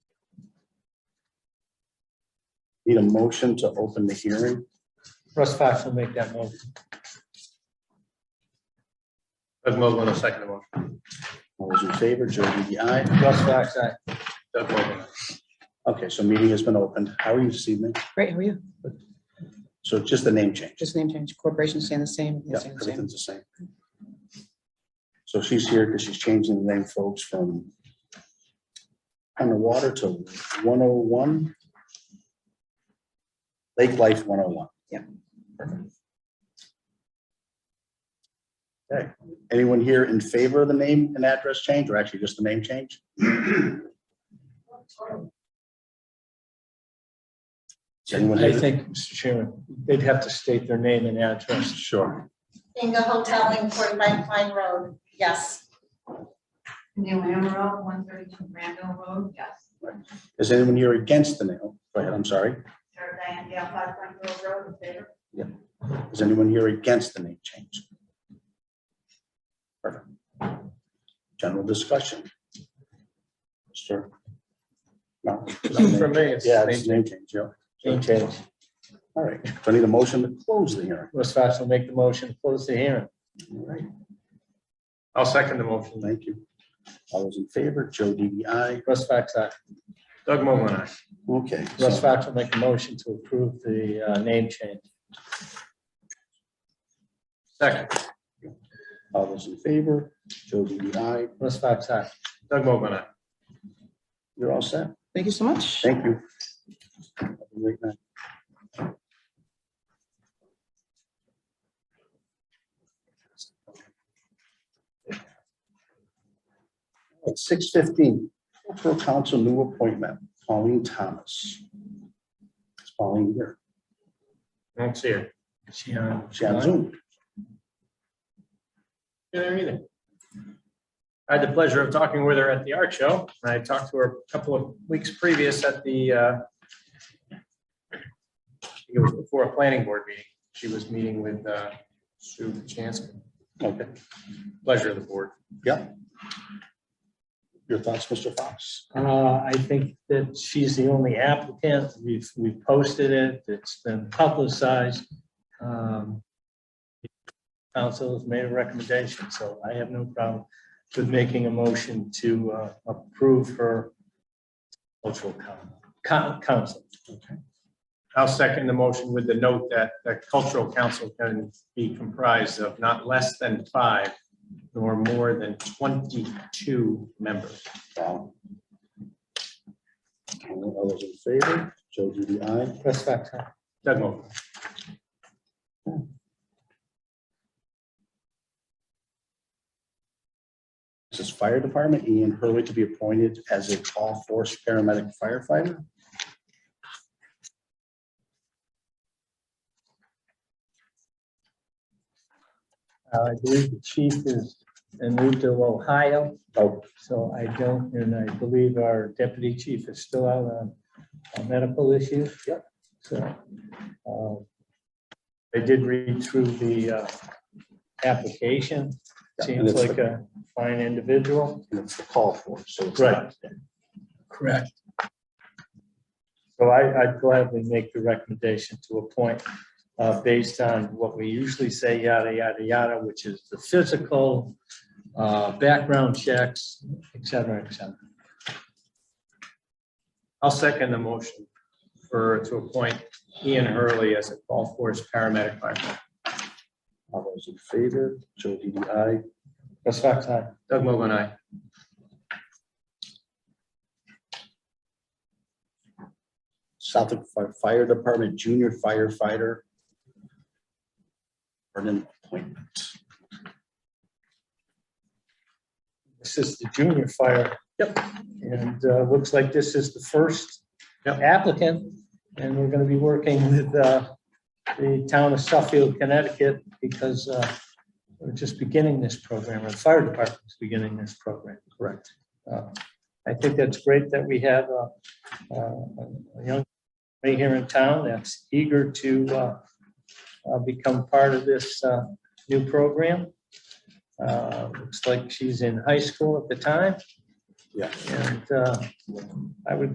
Need a motion to open the hearing. Russ Fox will make that motion. Doug Mogul, a second motion. All those in favor, Joe DDI. aye. Russ Fox, aye. Doug Mogul. Okay, so meeting has been opened. How are you this evening? Great, how are you? So just the name change. Just name change, corporations staying the same. they're Yeah, staying the same. everything's the same. So she's here because she's changing the name, folks, from Underwater to 101. Lake Life 101. Yeah. Perfect. Okay, anyone here in favor of the name and address change, or actually just the name change? Is anyone I here? think, Mr. Chairman, they'd have to state their name and address. Sure. Bingo Hotel in forty-five Pine Road, yes. New Emerald, one thirty-two Randall Road, yes. Is anyone here against the name? Go ahead, I'm sorry. Sarah Diane Gale, five Randall Road, in favor. Is anyone here against the name change? Perfect. General discussion. Mr. No. it's not a name For me, change. it's Yeah, name it's a name change, yeah. Name change. All right. Do I need a motion to close the hearing? Russ Fox will make the motion, close the hearing. All right, I'll second the motion. thank you. All those in favor, Joe DDI. Russ Fox, aye. Doug Mogul, aye. Okay. so- Russ Fox will make a motion to approve the uh, name change. Second, All those in favor, Joe DDI. Russ Fox, aye. Doug Mogul, aye. You're all set. Thank you so much. Thank you. Have a great night. Six fifteen, cultural council new appointment, Pauline Thomas. Is Pauline here? I don't see her. She on? She on Zoom? Yeah, there either. I had the pleasure of talking with her at the art show. and I talked to her a couple of weeks previous at the, uh, I think it was before a planning board meeting. She was meeting with uh, Sue Chansky. Okay, Pleasure of the board. your thoughts, Mr. Fox? Uh, I think that she's the only applicant. We've, we've posted it. It's been publicized. Um, Council has made a recommendation, so I have no problem with making a motion to uh, approve her cultural coun- coun- council. I'll second the motion with the note that the cultural council can be comprised of not less than five nor more than twenty-two members. Wow. All those in favor, Joe DDI. Russ Fox, aye. Doug Mogul. This is Fire Department, Ian Hurley to be appointed as a call force paramedic firefighter. Uh, I believe the chief is, and moved to Ohio. Oh. So I don't, and I believe our deputy chief is still out on on medical issues. Yep. So. um, I did read through the uh, application. Yeah, and Seems it's like a fine individual. And it's the call force, so. it's Right. Correct. So I, I'd gladly make the recommendation to appoint, uh, based on what we usually say, yada, yada, yada, which is the physical, uh, background checks, et cetera, et cetera. I'll second the motion for, to appoint Ian Hurley as a call force paramedic firefighter. All those in favor, Joe DDI. Russ Fox, aye. Doug Mogul, aye. Suffolk Fi- Fire Department Junior Firefighter. For an appointment. This is the junior fire. Yep. And, uh, looks like this is the first Yep. applicant, and we're gonna be working with, uh, the town of Suffield, Connecticut, because, uh, we're just beginning this program, or the fire department's beginning this program. Correct. Uh, I think that's great that we have a, a a young lady here in town that's eager to, uh, uh, become part of this, uh, new program. Uh, Looks like she's in high school at the time. Yeah. And uh, I would